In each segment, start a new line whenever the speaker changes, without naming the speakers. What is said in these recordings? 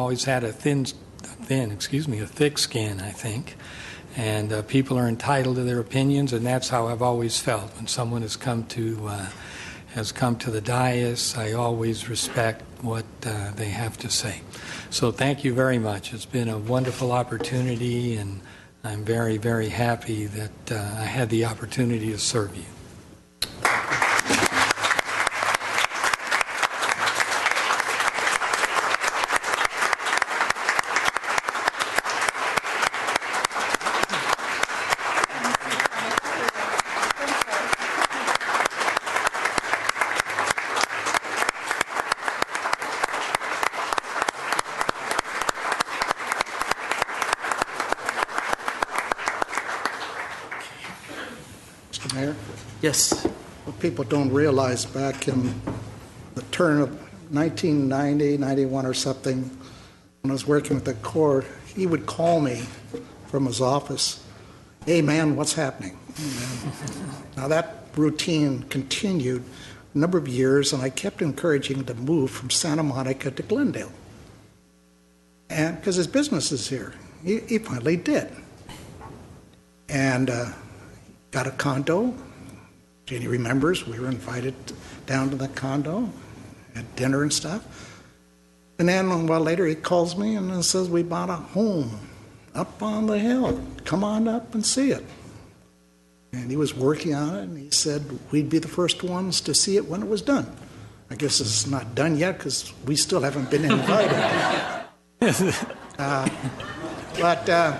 always had a thin, thin, excuse me, a thick skin, I think. And uh, people are entitled to their opinions, and that's how I've always felt. When someone has come to, uh, has come to the dais, I always respect what uh, they have to say. So thank you very much. It's been a wonderful opportunity, and I'm very, very happy that uh, I had the opportunity to serve you.
Mr. Mayor,
Yes.
what people don't realize back in the turn of 1990, 91 or something, when I was working with the Corps, he would call me from his office, "Hey, man, what's happening?" Now, that routine continued a number of years, and I kept encouraging him to move from Santa Monica to Glendale. And, because his business is here. He he finally did. And uh, got a condo. Jenny remembers, we were invited down to the condo, had dinner and stuff. And then a while later, he calls me and says, "We bought a home up on the hill. Come on up and see it." And he was working on it, and he said we'd be the first ones to see it when it was done. I guess it's not done yet because we still haven't been invited. Uh, but. Uh,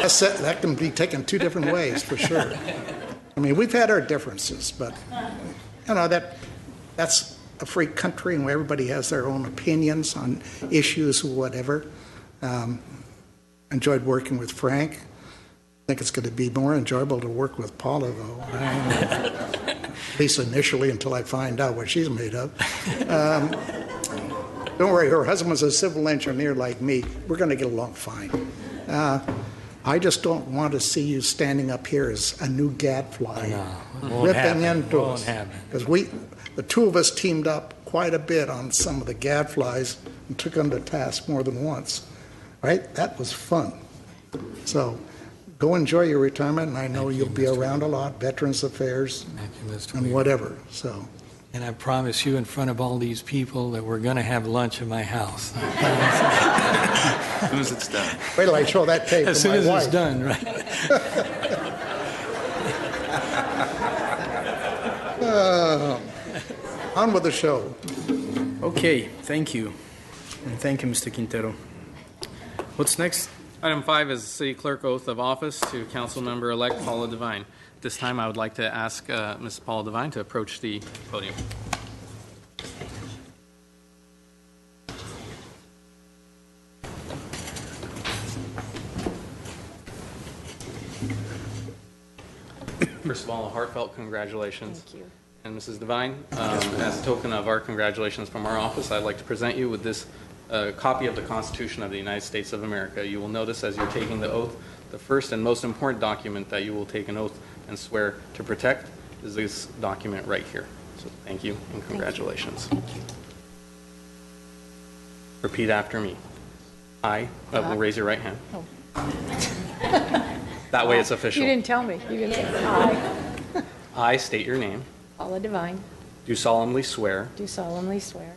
that's, that can be taken two different ways, for sure. I mean, we've had our differences, but, you know, that, that's a free country and where everybody has their own opinions on issues, whatever. Um, Enjoyed working with Frank. I think it's going to be more enjoyable to work with Paula, though. At least initially, until I find out what she's made of. Um, Don't worry, her husband's a civil engineer like me. We're going to get along fine. Uh, I just don't want to see you standing up here as a new gadfly,
won't happen.
ripping into
Won't
us.
happen.
Because we, the two of us teamed up quite a bit on some of the gadflies and took them to task more than once, right? That was fun. So go enjoy your retirement, and I know
Thank you,
you'll be
Mr.
around a lot, Veterans Affairs
Thank you, Mr.
and
Weaver.
whatever, so.
And I promise you in front of all these people that we're going to have lunch at my house.
As soon as it's done.
Wait till I show that tape
As
to
soon
my
as it's
wife.
done, right?
On with the show.
Okay, thank you. And thank you, Mr. Quintero. What's next?
Item five is the city clerk oath of office to council member elect Paula Devine. At This time, I would like to ask uh, Ms. Paula Devine to approach the podium. First of all, a heartfelt congratulations. Thank you. And Mrs. Devine, um, as a token of our congratulations from our office, I'd like to present you with this uh, copy of the Constitution of the United States of America. You will notice as you're taking the oath, the first and most important document that you will take an oath and swear to protect is this document right here. So thank you and congratulations. Repeat after me. I, uh, well, raise your right hand. That way it's official.
You didn't tell me. You didn't say, "I,
I state your name,
Paula Devine,
do solemnly swear
do solemnly swear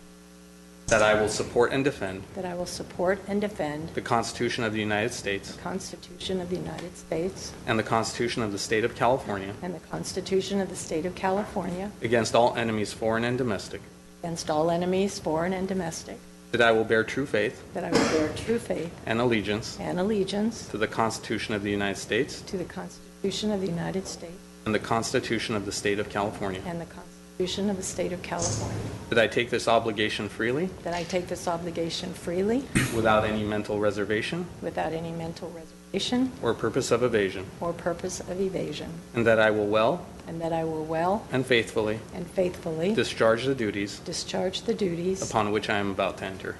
that I will support and defend
that I will support and defend
the Constitution of the United States
the Constitution of the United States
and the Constitution of the State of California
and the Constitution of the State of California
against all enemies, foreign and domestic,
against all enemies, foreign and domestic,
that I will bear true faith
that I will bear true faith
and allegiance
and allegiance
to the Constitution of the United States
to the Constitution of the United States
and the Constitution of the State of California,
and the Constitution of the State of California,
that I take this obligation freely
that I take this obligation freely
without any mental reservation
without any mental reservation
or purpose of evasion,
or purpose of evasion,
and that I will well
and that I will well
and faithfully
and faithfully
discharge the duties
Discharge the duties
upon which I am about to enter.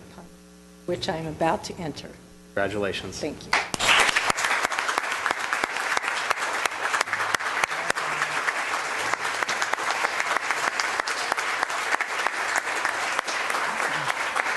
which I am about to enter.
Congratulations.
Thank you.